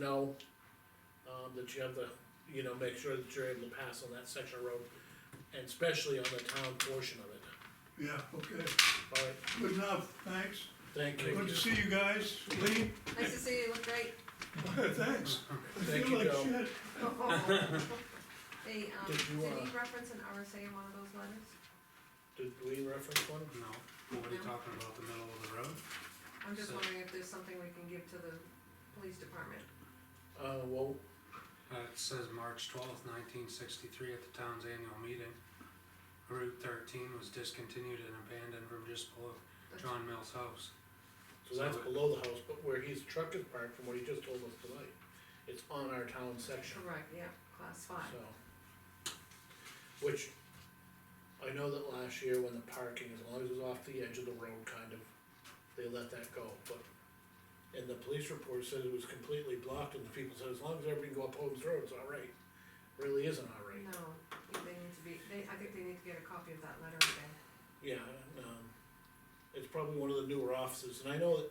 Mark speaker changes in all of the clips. Speaker 1: know, um, that you have the, you know, make sure that you're able to pass on that section of road, and especially on the town portion of it.
Speaker 2: Yeah, okay,
Speaker 1: All right,
Speaker 2: good enough, thanks.
Speaker 1: thank you.
Speaker 2: Good to see you guys, Lee,
Speaker 3: Nice to see you, you look great.
Speaker 2: thanks. I
Speaker 1: Thank
Speaker 2: feel
Speaker 1: you,
Speaker 2: like
Speaker 1: Bill.
Speaker 2: shit.
Speaker 3: They, um, did
Speaker 1: Did you,
Speaker 3: he
Speaker 1: uh,
Speaker 3: reference an RSA in one of those letters?
Speaker 1: Did we reference one?
Speaker 4: No, what are you
Speaker 3: No.
Speaker 4: talking about, the middle of the road?
Speaker 3: I'm just
Speaker 4: So-
Speaker 3: wondering if there's something we can give to the police department.
Speaker 1: Uh, well,
Speaker 4: Uh, it says March twelfth, nineteen sixty-three, at the town's annual meeting. Route thirteen was discontinued and abandoned from just below
Speaker 3: That's-
Speaker 4: John Mills' house.
Speaker 1: so that's below the house, but where his truck is parked, from what he just told us tonight, it's on our town section,
Speaker 3: Correct, yeah, class five.
Speaker 1: so. Which, I know that last year when the parking, as long as it was off the edge of the road, kind of, they let that go, but. And the police report said it was completely blocked, and the people said, as long as everybody can go up Holmes Road, it's all right, really isn't all right.
Speaker 3: No, they need to be, they, I think they need to get a copy of that letter again.
Speaker 1: Yeah, and, um, it's probably one of the newer offices, and I know that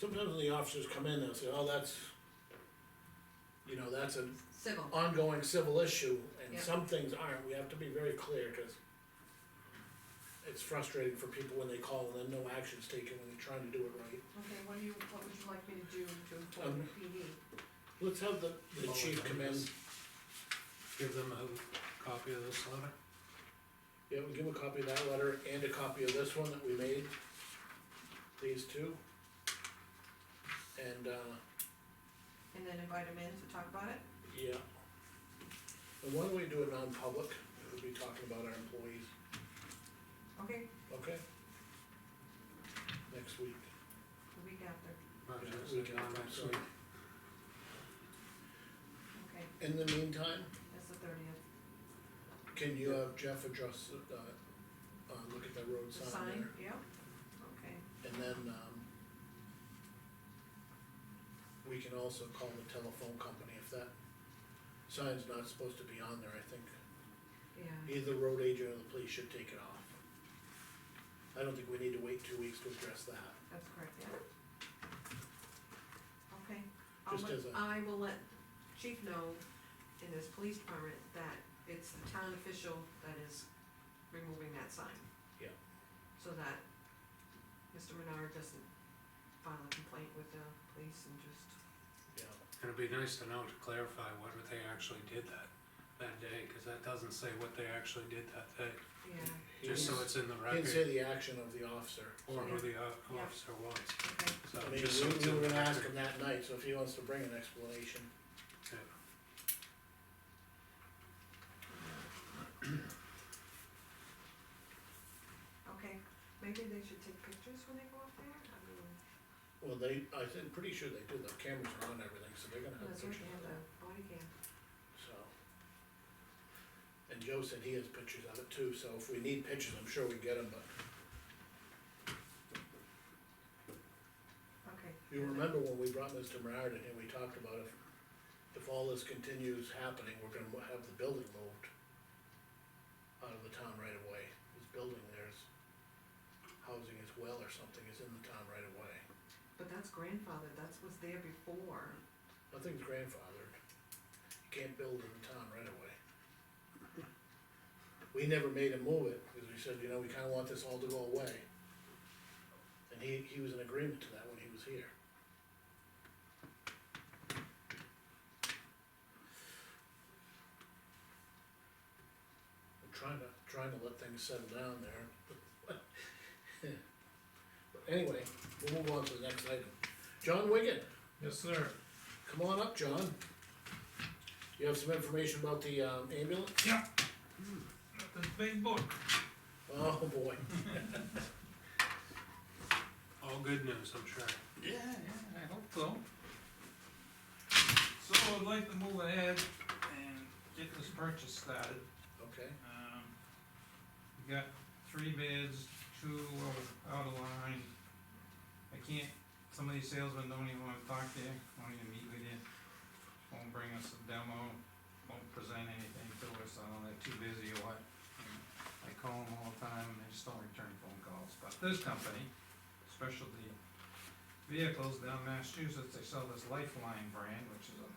Speaker 1: sometimes when the officers come in, they'll say, oh, that's, you know, that's an
Speaker 3: Civil,
Speaker 1: ongoing civil issue, and
Speaker 3: Yeah.
Speaker 1: some things aren't, we have to be very clear, cause it's frustrating for people when they call and then no action's taken when you're trying to do it right.
Speaker 3: okay, what do you, what would you like me to do to inform
Speaker 1: Um,
Speaker 3: the PD?
Speaker 1: Let's have the, the
Speaker 4: Well,
Speaker 1: chief
Speaker 4: we've
Speaker 1: come
Speaker 4: done
Speaker 1: in,
Speaker 4: this. Give them a copy of this letter.
Speaker 1: yeah, we'll give him a copy of that letter and a copy of this one that we made, these two. And, uh,
Speaker 3: And then invite them in to talk about it?
Speaker 1: Yeah. And why don't we do it non-public, we'll be talking about our employees,
Speaker 3: Okay,
Speaker 1: okay? Next week.
Speaker 3: the week after,
Speaker 4: Not
Speaker 1: Yeah,
Speaker 4: just
Speaker 1: we
Speaker 4: the
Speaker 1: can
Speaker 4: one
Speaker 1: talk
Speaker 4: next
Speaker 1: about
Speaker 4: week.
Speaker 3: okay,
Speaker 1: In the meantime,
Speaker 3: that's the thirtieth.
Speaker 1: can you have Jeff address, the, uh, uh, look at that road
Speaker 3: The
Speaker 1: sign
Speaker 3: sign,
Speaker 1: there,
Speaker 3: yeah, okay.
Speaker 1: and then, um, we can also call the telephone company if that sign's not supposed to be on there, I think.
Speaker 3: Mm-hmm. Yeah,
Speaker 1: Either road agent or the police should take it off. I don't think we need to wait two weeks to address that.
Speaker 3: that's correct, yeah. Okay, I'll
Speaker 1: Just
Speaker 3: let,
Speaker 1: as a-
Speaker 3: I will let chief know in his police department that it's the town official that is removing that sign.
Speaker 1: Yeah.
Speaker 3: So that Mr. Menard doesn't file a complaint with the police and just,
Speaker 1: Yeah.
Speaker 4: It'd be nice to know to clarify what they actually did that, that day, cause that doesn't say what they actually did that day.
Speaker 3: yeah,
Speaker 4: Just so
Speaker 1: He's-
Speaker 4: it's in the
Speaker 1: He Didn't say
Speaker 4: record,
Speaker 1: the action of the officer.
Speaker 4: or who the uh,
Speaker 3: Yeah.
Speaker 4: officer was,
Speaker 3: okay,
Speaker 4: so
Speaker 1: I mean,
Speaker 4: just so it's
Speaker 1: we,
Speaker 4: in
Speaker 1: we
Speaker 4: the
Speaker 1: were
Speaker 4: record.
Speaker 1: gonna ask him that night, so if he wants to bring an explanation,
Speaker 4: Yeah.
Speaker 3: okay. Maybe they should take pictures when they go up there, I mean,
Speaker 1: well, they, I think, pretty sure they do, the cameras are on everything, so they're gonna have
Speaker 3: Oh, that's right,
Speaker 1: pictures
Speaker 3: they have
Speaker 1: of
Speaker 3: the
Speaker 1: it,
Speaker 3: body cam.
Speaker 1: so. And Joe said he has pictures of it too, so if we need pictures, I'm sure we get them, but
Speaker 3: Okay.
Speaker 1: you remember when we brought Mr. Menard in and we talked about if, if all this continues happening, we're gonna have the building moved out of the town right away, this building there's housing as well or something is in the town right away.
Speaker 3: But that's grandfather, that's what's there before.
Speaker 1: Nothing's grandfathered. You can't build in the town right away. We never made him move it, because we said, you know, we kinda want this all to go away. And he, he was in agreement to that when he was here. I'm trying to, trying to let things settle down there. But Anyway, we'll move on to the next item. John Wigan.
Speaker 5: Yes, sir.
Speaker 1: Come on up, John. You have some information about the um, ambulance?
Speaker 5: Got This big book.
Speaker 1: Oh, boy.
Speaker 4: All good news, I'm sure.
Speaker 5: Yeah, yeah, I hope so. So I'd like to move ahead and get this purchase started.
Speaker 1: Okay,
Speaker 5: Um, we got three bids, two are out of line. I can't, some of these salesmen don't even wanna talk to you, won't even meet with you, won't bring us a demo, won't present anything to us, I don't know, they're too busy or what. I call them all the time and they just don't return phone calls, but this company, Specialty vehicles down in Massachusetts, they sell this Lifeline brand, which is a